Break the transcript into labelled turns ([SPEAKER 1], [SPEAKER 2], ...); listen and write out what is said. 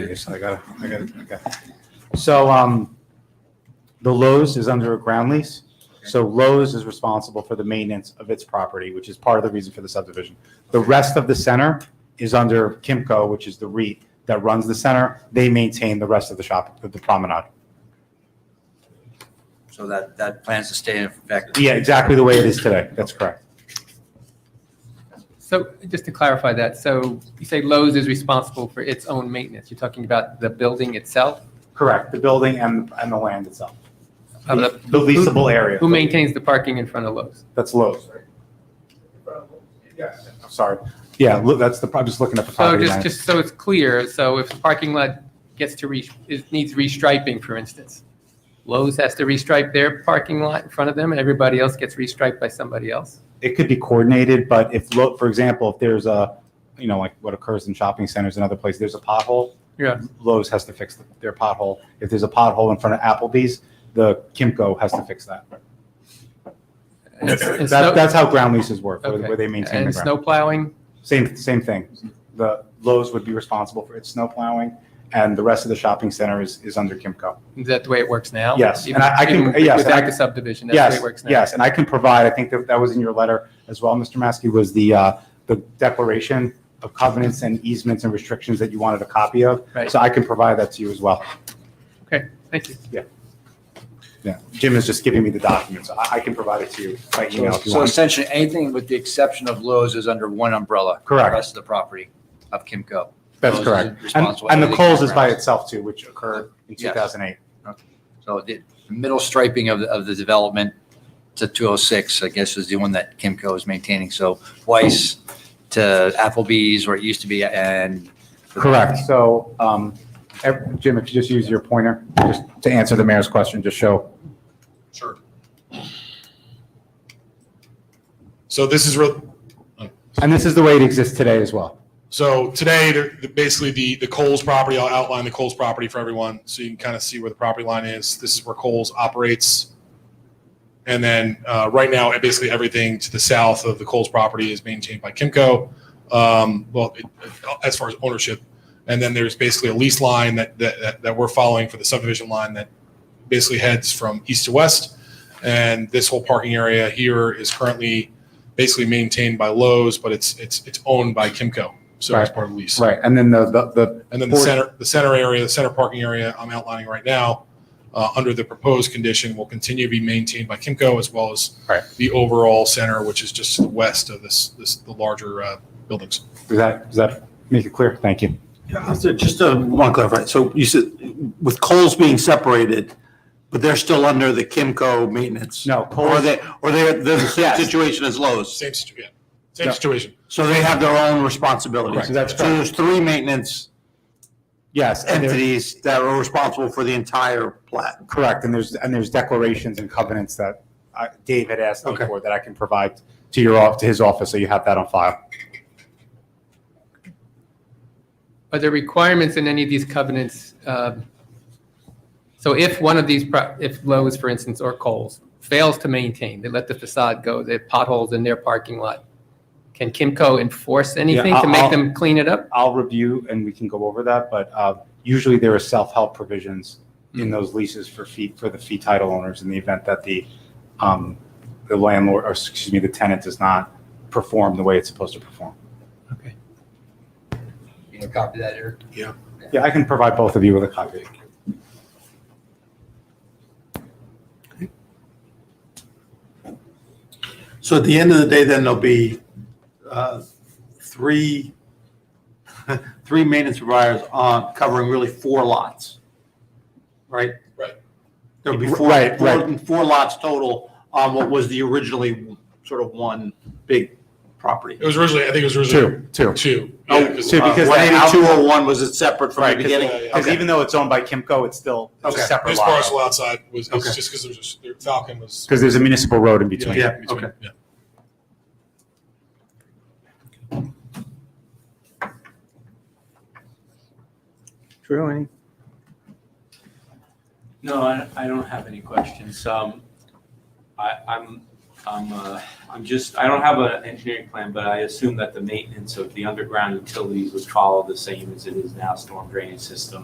[SPEAKER 1] Yes, I got it, I got it, okay. So, um, the Lowe's is under a ground lease. So Lowe's is responsible for the maintenance of its property, which is part of the reason for the subdivision. The rest of the center is under Kimco, which is the REIT that runs the center. They maintain the rest of the shop, the promenade.
[SPEAKER 2] So that, that plans to stay in effect.
[SPEAKER 1] Yeah, exactly the way it is today. That's correct.
[SPEAKER 3] So just to clarify that, so you say Lowe's is responsible for its own maintenance. You're talking about the building itself?
[SPEAKER 1] Correct, the building and, and the land itself.
[SPEAKER 3] Of
[SPEAKER 1] The
[SPEAKER 3] Uh, the-
[SPEAKER 1] leasable area.
[SPEAKER 3] Who maintains the parking in front of Lowe's?
[SPEAKER 1] That's Lowe's. Yes, I'm sorry. Yeah, look, that's the, I'm just looking at the
[SPEAKER 3] So
[SPEAKER 1] property
[SPEAKER 3] just,
[SPEAKER 1] line.
[SPEAKER 3] just so it's clear, so if the parking lot gets to re, is, needs restriping, for instance, Lowe's has to restripe their parking lot in front of them and everybody else gets restriped by somebody else?
[SPEAKER 1] It could be coordinated, but if, look, for example, if there's a, you know, like what occurs in shopping centers and other places, there's a pothole.
[SPEAKER 3] Yeah.
[SPEAKER 1] Lowe's has to fix their pothole. If there's a pothole in front of Applebee's, the Kimco has to fix that.
[SPEAKER 3] And s- and
[SPEAKER 1] That,
[SPEAKER 3] snow-
[SPEAKER 1] that's how ground leases work, where
[SPEAKER 3] Okay.
[SPEAKER 1] where they maintain the
[SPEAKER 3] And
[SPEAKER 1] ground.
[SPEAKER 3] snow plowing?
[SPEAKER 1] Same, same thing. The Lowe's would be responsible for its snow plowing, and the rest of the shopping center is, is under Kimco.
[SPEAKER 3] Is that the way it works now?
[SPEAKER 1] Yes, and
[SPEAKER 3] Even-
[SPEAKER 1] I- I can-
[SPEAKER 3] even
[SPEAKER 1] yes, and I-
[SPEAKER 3] Without the subdivision, that's the way it works now?
[SPEAKER 1] Yes, yes, and I can provide, I think that that was in your letter as well, Mr. Maskey, was the, uh, the declaration of covenants and easements and restrictions that you wanted a copy of.
[SPEAKER 3] Right.
[SPEAKER 1] So I can provide that to you as well.
[SPEAKER 3] Thank you.
[SPEAKER 1] Yeah, Jim is just giving me the document, so I, I can provide it to you by email if you
[SPEAKER 2] So
[SPEAKER 1] want.
[SPEAKER 2] essentially, anything with the exception of Lowe's is under one umbrella.
[SPEAKER 1] Correct.
[SPEAKER 2] The rest of the property of Kimco.
[SPEAKER 1] That's
[SPEAKER 2] Lowe's is
[SPEAKER 1] correct. And,
[SPEAKER 2] responsible
[SPEAKER 1] and the
[SPEAKER 2] for
[SPEAKER 1] Coles is by
[SPEAKER 2] campgrounds.
[SPEAKER 1] itself too, which occurred in
[SPEAKER 2] Yes.
[SPEAKER 1] 2008.
[SPEAKER 2] So the middle striping of, the- of the development to 206, I guess, is the one that Kimco is maintaining. So Weiss to Applebee's, where it used to be, and.
[SPEAKER 1] Correct, so, um, ev- Jim, if you just use your pointer, just to answer the mayor's question, just show
[SPEAKER 4] Sure. So this is real,
[SPEAKER 1] And this is the way it exists today as well.
[SPEAKER 4] so today, they're- they're basically the, the Coles property, I'll outline the Coles property for everyone, so you can kind of see where the property line is. This is where Coles operates. And then, uh, right now, basically everything to the south of the Coles property is maintained by Kimco, um, well, it- as far as ownership. And then there's basically a lease line that, that, that- that we're following for the subdivision line that basically heads from east to west. And this whole parking area here is currently basically maintained by Lowe's, but it's, it's, it's owned by Kimco. So it's
[SPEAKER 1] Right.
[SPEAKER 4] part of the lease.
[SPEAKER 1] Right, and then the, the- the,
[SPEAKER 4] And then the
[SPEAKER 1] Or-
[SPEAKER 4] center, the center area, the center parking area I'm outlining right now, uh, under the proposed condition, will continue to be maintained by Kimco as well as
[SPEAKER 1] Right.
[SPEAKER 4] the overall center, which is just to the west of this, this, the larger, uh, buildings.
[SPEAKER 1] does that, does that make it clear? Thank you.
[SPEAKER 5] Yeah, so Just to want to clarify, so you said with Coles being separated, but they're still under the Kimco maintenance?
[SPEAKER 1] No,
[SPEAKER 5] Or are
[SPEAKER 1] Coles,
[SPEAKER 5] they, or they're, they're the same situation as Lowe's?
[SPEAKER 4] Same situ, yeah, same
[SPEAKER 1] Yeah.
[SPEAKER 4] situation.
[SPEAKER 5] So they have their own responsibilities?
[SPEAKER 1] Correct. That's
[SPEAKER 5] So there's three maintenance
[SPEAKER 1] yes, and they're-
[SPEAKER 5] entities that are responsible for the entire plat?
[SPEAKER 1] correct, and there's, and there's declarations and covenants that uh, Dave had asked me
[SPEAKER 4] Okay.
[SPEAKER 1] for that I can provide to your, off to his office, so you have that on file.
[SPEAKER 3] Are there requirements in any of these covenants? um, So if one of these, pro- if Lowe's, for instance, or Kohl's fails to maintain, they let the facade go, they have potholes in their parking lot, can Kimco enforce anything to
[SPEAKER 1] I'll- I'll-
[SPEAKER 3] make them clean it up?
[SPEAKER 1] I'll review and we can go over that, but uh, usually there are self-help provisions in those leases for fee, for the fee title owners in the event that the, um, the landlord, or excuse me, the tenant does not perform the way it's supposed to perform.
[SPEAKER 3] Okay.
[SPEAKER 2] You know, copy that, Eric?
[SPEAKER 1] Yeah, I can provide both of you with a copy.
[SPEAKER 5] So at the end of the day, then there'll be uh, three, three maintenance providers on, covering really four lots, right?
[SPEAKER 4] Right.
[SPEAKER 5] There'll be four,
[SPEAKER 1] Right,
[SPEAKER 5] four, four lots total on what was the originally sort of one big property.
[SPEAKER 4] It was originally, I think it was originally
[SPEAKER 1] Two, two.
[SPEAKER 4] two.
[SPEAKER 5] Oh,
[SPEAKER 4] Yeah, 'cause-
[SPEAKER 1] two,
[SPEAKER 5] Uh,
[SPEAKER 1] because that
[SPEAKER 5] 18201, was it separate from
[SPEAKER 1] Right, 'cause-
[SPEAKER 5] the beginning?
[SPEAKER 4] yeah, yeah.
[SPEAKER 1] Because
[SPEAKER 5] Okay.
[SPEAKER 1] even though it's owned by Kimco, it's still it's a
[SPEAKER 5] Okay.
[SPEAKER 1] separate
[SPEAKER 4] This
[SPEAKER 1] lot.
[SPEAKER 4] parcel outside was, it's
[SPEAKER 5] Okay.
[SPEAKER 4] just because there's, just- there- Falcon was.
[SPEAKER 1] Because there's a municipal road in between.
[SPEAKER 5] Yeah.
[SPEAKER 4] between,
[SPEAKER 5] okay.
[SPEAKER 4] yeah.
[SPEAKER 1] True.
[SPEAKER 6] No, I, I don't have any questions. Um, I, I'm I'm, uh, I'm just, I don't have an engineering plan, but I assume that the maintenance of the underground utilities would follow the same as it is now, storm drainage system.